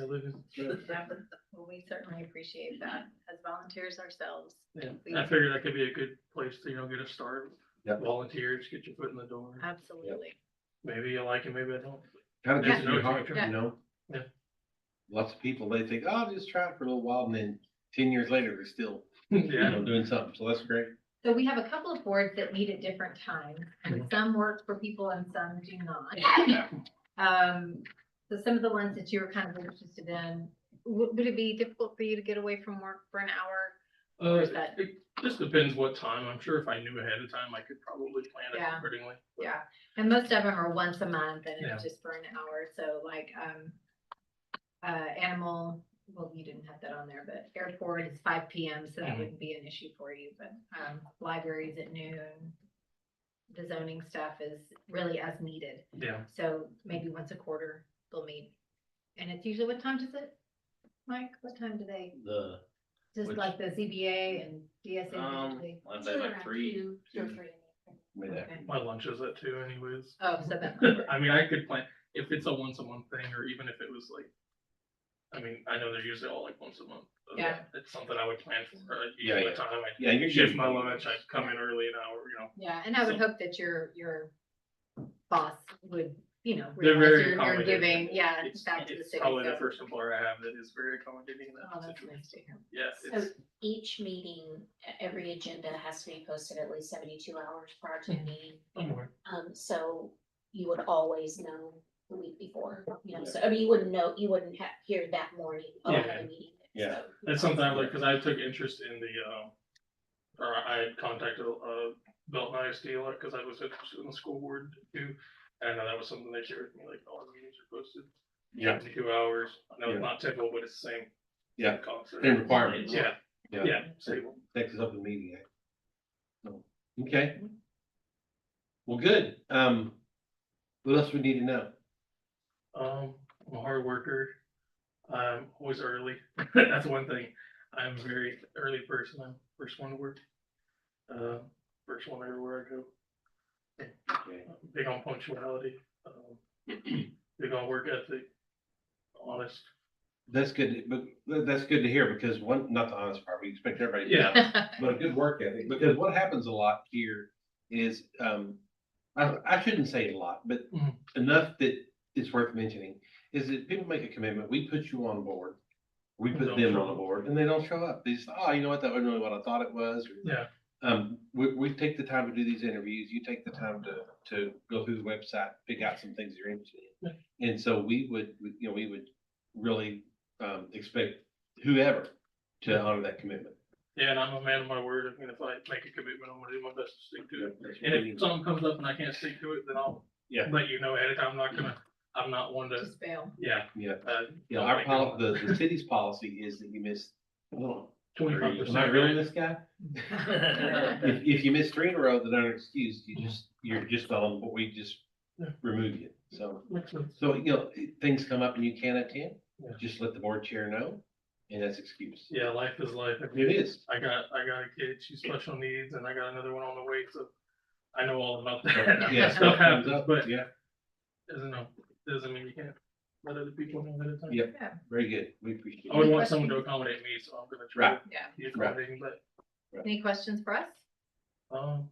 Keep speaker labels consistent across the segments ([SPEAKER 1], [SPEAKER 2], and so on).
[SPEAKER 1] I live in.
[SPEAKER 2] That was, well, we certainly appreciate that as volunteers ourselves.
[SPEAKER 1] Yeah, I figured that could be a good place to, you know, get a start.
[SPEAKER 3] Yeah.
[SPEAKER 1] Volunteers, get your foot in the door.
[SPEAKER 2] Uh, Absolutely.
[SPEAKER 1] Maybe you like it, maybe I don't.
[SPEAKER 3] Kind of
[SPEAKER 1] Yeah.
[SPEAKER 3] gets in your heart,
[SPEAKER 2] Yeah.
[SPEAKER 3] you know?
[SPEAKER 1] Yeah.
[SPEAKER 3] Lots of people, they think, oh, I'll just try it for a little while and then ten years later, they're still, you
[SPEAKER 1] Yeah.
[SPEAKER 3] know, doing something. So that's great.
[SPEAKER 2] So we have a couple of boards that meet at different times, and some work for people and some do not.
[SPEAKER 3] Yeah.
[SPEAKER 2] Um, so some of the ones that you were kind of interested in, would, would it be difficult for you to get away from work for an hour?
[SPEAKER 1] Uh,
[SPEAKER 2] Is that-
[SPEAKER 1] it just depends what time. I'm sure if I knew ahead of time, I could probably plan it
[SPEAKER 2] Yeah.
[SPEAKER 1] accordingly.
[SPEAKER 2] Yeah, and most of them are once a month and
[SPEAKER 1] Yeah.
[SPEAKER 2] it's just for an hour, so like, um, uh, animal, well, you didn't have that on there, but airport is five P M, so that
[SPEAKER 1] Mhm.
[SPEAKER 2] wouldn't be an issue for you, but, um, libraries at noon. The zoning stuff is really as needed,
[SPEAKER 1] Yeah,
[SPEAKER 2] so maybe once a quarter they'll meet. And it's usually, what time does it, Mike, what time do they,
[SPEAKER 4] The,
[SPEAKER 2] just
[SPEAKER 4] Which-
[SPEAKER 2] like the Z B A and D S A?
[SPEAKER 4] um, I'd say like three, two.
[SPEAKER 3] Way that-
[SPEAKER 2] Okay.
[SPEAKER 1] my lunch is at two anyways.
[SPEAKER 2] Oh, so that,
[SPEAKER 1] I mean, I could plan, if it's a once a month thing, or even if it was like, I mean, I know they're usually all like once a month. but
[SPEAKER 2] Yeah.
[SPEAKER 1] It's something I would plan for, like,
[SPEAKER 3] Yeah,
[SPEAKER 1] usually
[SPEAKER 3] yeah.
[SPEAKER 1] the time, I
[SPEAKER 3] Yeah, you're.
[SPEAKER 1] shift my lunch, I'd come in early an hour, you know.
[SPEAKER 2] Yeah, and I would hope that your, your boss would, you know,
[SPEAKER 1] They're
[SPEAKER 2] realize
[SPEAKER 1] very
[SPEAKER 2] you're, you're
[SPEAKER 1] accommodating.
[SPEAKER 2] giving, yeah,
[SPEAKER 1] It's-
[SPEAKER 2] back to the
[SPEAKER 1] it's
[SPEAKER 2] city.
[SPEAKER 1] Probably the
[SPEAKER 2] so-
[SPEAKER 1] first employer I have that is very accommodating in
[SPEAKER 2] Oh,
[SPEAKER 1] that
[SPEAKER 2] that's
[SPEAKER 1] situation.
[SPEAKER 2] nice to hear.
[SPEAKER 1] Yeah,
[SPEAKER 5] So
[SPEAKER 1] it's,
[SPEAKER 5] each meeting, e- every agenda has to be posted at least seventy-two hours prior to the meeting. Um, so you would always know the week before, you know, so, I mean, you wouldn't know, you wouldn't have, hear that morning, oh, I have a meeting.
[SPEAKER 3] Yeah.
[SPEAKER 5] So,
[SPEAKER 1] that's something I like, cause I took interest in the, um, or I had contacted, uh, Belton ISD a lot, cause I was interested in the school board too. And I know that was something they shared with me, like, all our meetings are posted.
[SPEAKER 3] Yeah.
[SPEAKER 1] Two hours, I know
[SPEAKER 3] Yeah.
[SPEAKER 1] it's not typical, but it's the same.
[SPEAKER 3] Yeah.
[SPEAKER 1] Concept.
[SPEAKER 3] Same requirements.
[SPEAKER 1] Yeah,
[SPEAKER 3] Yeah.
[SPEAKER 1] yeah, same.
[SPEAKER 3] Texas Open Meeting Act. So, Okay. Well, good. Um, what else we need to know?
[SPEAKER 1] Um, I'm a hard worker. I'm always early. That's one thing. I'm a very early person. I'm first one to work. Uh, first one everywhere I go.
[SPEAKER 3] Okay.
[SPEAKER 1] I'm Big on punctuality. Um, big on work ethic. Honest.
[SPEAKER 3] That's good, but tha- that's good to hear because one, not the honest part, we expect everybody. to-
[SPEAKER 1] Yeah,
[SPEAKER 3] But a good work ethic, because what happens a lot here is, um, I, I shouldn't say a lot, but
[SPEAKER 1] Mhm.
[SPEAKER 3] enough that it's worth mentioning. Is that people make a commitment, we put you on board, we
[SPEAKER 1] And
[SPEAKER 3] put
[SPEAKER 1] don't
[SPEAKER 3] them
[SPEAKER 1] show
[SPEAKER 3] on
[SPEAKER 1] up.
[SPEAKER 3] board and they don't show up. They just, oh, you know what, that wasn't really what I thought it was. or,
[SPEAKER 1] yeah,
[SPEAKER 3] Um, we, we take the time to do these interviews, you take the time to, to go through the website, pick out some things you're interested in. And so we would, we- you know, we would really, um, expect whoever to honor that commitment.
[SPEAKER 1] yeah. And I'm a man of my word. I mean, if I make a commitment, I'm gonna do my best to stick to it.
[SPEAKER 3] That's
[SPEAKER 1] And
[SPEAKER 3] really-
[SPEAKER 1] if something comes up and I can't stick to it, then I'll
[SPEAKER 3] Yeah.
[SPEAKER 1] let you know ahead of time. I'm not gonna. I'm not one to.
[SPEAKER 2] Just fail.
[SPEAKER 1] Yeah.
[SPEAKER 3] Yeah.
[SPEAKER 1] Uh,
[SPEAKER 3] Yeah, our pol the, the city's policy is that you miss, well,
[SPEAKER 1] Twenty-five
[SPEAKER 3] am I really
[SPEAKER 1] percent.
[SPEAKER 3] this guy? If, if you miss three in a row that aren't excused, you just, you're just on, but we just
[SPEAKER 1] Yeah.
[SPEAKER 3] remove you. So,
[SPEAKER 1] Makes sense.
[SPEAKER 3] so, you know, things come up and you can't attend,
[SPEAKER 1] Yeah.
[SPEAKER 3] just let the board chair know, and that's excused.
[SPEAKER 1] Yeah, life is life. I mean,
[SPEAKER 3] It is.
[SPEAKER 1] I got, I got a kid, she's special needs, and I got another one on the way, so I know all about that.
[SPEAKER 3] Yeah,
[SPEAKER 1] Stuff
[SPEAKER 3] stuff comes
[SPEAKER 1] happens,
[SPEAKER 3] up,
[SPEAKER 1] but
[SPEAKER 3] yeah,
[SPEAKER 1] doesn't know, doesn't mean you can't let other people know ahead of time.
[SPEAKER 3] Yeah. very good. We appreciate
[SPEAKER 1] I would
[SPEAKER 3] it.
[SPEAKER 1] want someone to accommodate me, so I'm gonna try
[SPEAKER 3] Right.
[SPEAKER 1] to
[SPEAKER 2] Yeah.
[SPEAKER 1] be accommodating, but,
[SPEAKER 2] Any questions for us?
[SPEAKER 1] um.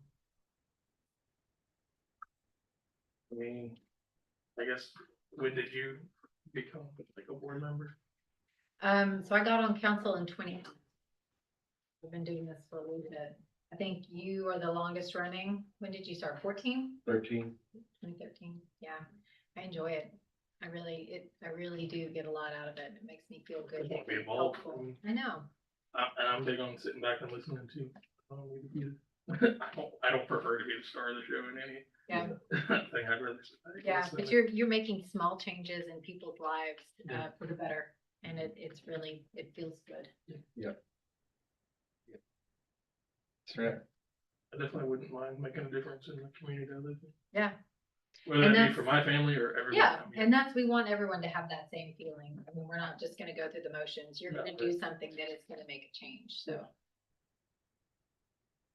[SPEAKER 1] I mean, I guess, when did you become like a board member?
[SPEAKER 2] Um, so I got on council in twenty. We've been doing this for a little bit. I think you are the longest running. When did you start? Fourteen?
[SPEAKER 3] Thirteen.
[SPEAKER 2] Twenty thirteen, yeah. I enjoy it. I really, it, I really do get a lot out of it. It makes me feel good.
[SPEAKER 1] Be
[SPEAKER 2] It's
[SPEAKER 1] involved.
[SPEAKER 2] helpful. I know.
[SPEAKER 1] I, and I'm big on sitting back and listening to. um, you. I don't, I don't prefer to be the star of the show in any.
[SPEAKER 2] Yeah.
[SPEAKER 1] Thing I'd rather. sit back and
[SPEAKER 2] Yeah,
[SPEAKER 1] listen
[SPEAKER 2] but
[SPEAKER 1] to.
[SPEAKER 2] you're, you're making small changes in people's lives, uh,
[SPEAKER 1] Yeah.
[SPEAKER 2] for the better, and it, it's really, it feels good.
[SPEAKER 3] That's right.
[SPEAKER 1] I definitely wouldn't mind making a difference in the community I live in.
[SPEAKER 2] Yeah.
[SPEAKER 1] Whether
[SPEAKER 2] And
[SPEAKER 1] that be
[SPEAKER 2] that's-
[SPEAKER 1] for my family or everyone.
[SPEAKER 2] Yeah,
[SPEAKER 1] I mean,
[SPEAKER 2] and that's, we want everyone to have that same feeling. I mean, we're not just gonna go through the motions. You're
[SPEAKER 1] No,
[SPEAKER 2] gonna
[SPEAKER 1] but-
[SPEAKER 2] do something that is gonna make a change, so.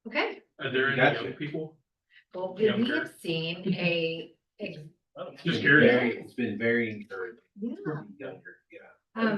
[SPEAKER 2] Okay,
[SPEAKER 1] Are there any
[SPEAKER 3] Gotcha.
[SPEAKER 1] young people?
[SPEAKER 2] well, we we
[SPEAKER 1] Younger.
[SPEAKER 2] have seen a, ex-
[SPEAKER 1] Just
[SPEAKER 3] It's been
[SPEAKER 1] curious.
[SPEAKER 3] very- It's been very encouraging.
[SPEAKER 2] yeah,
[SPEAKER 3] Younger.
[SPEAKER 2] um,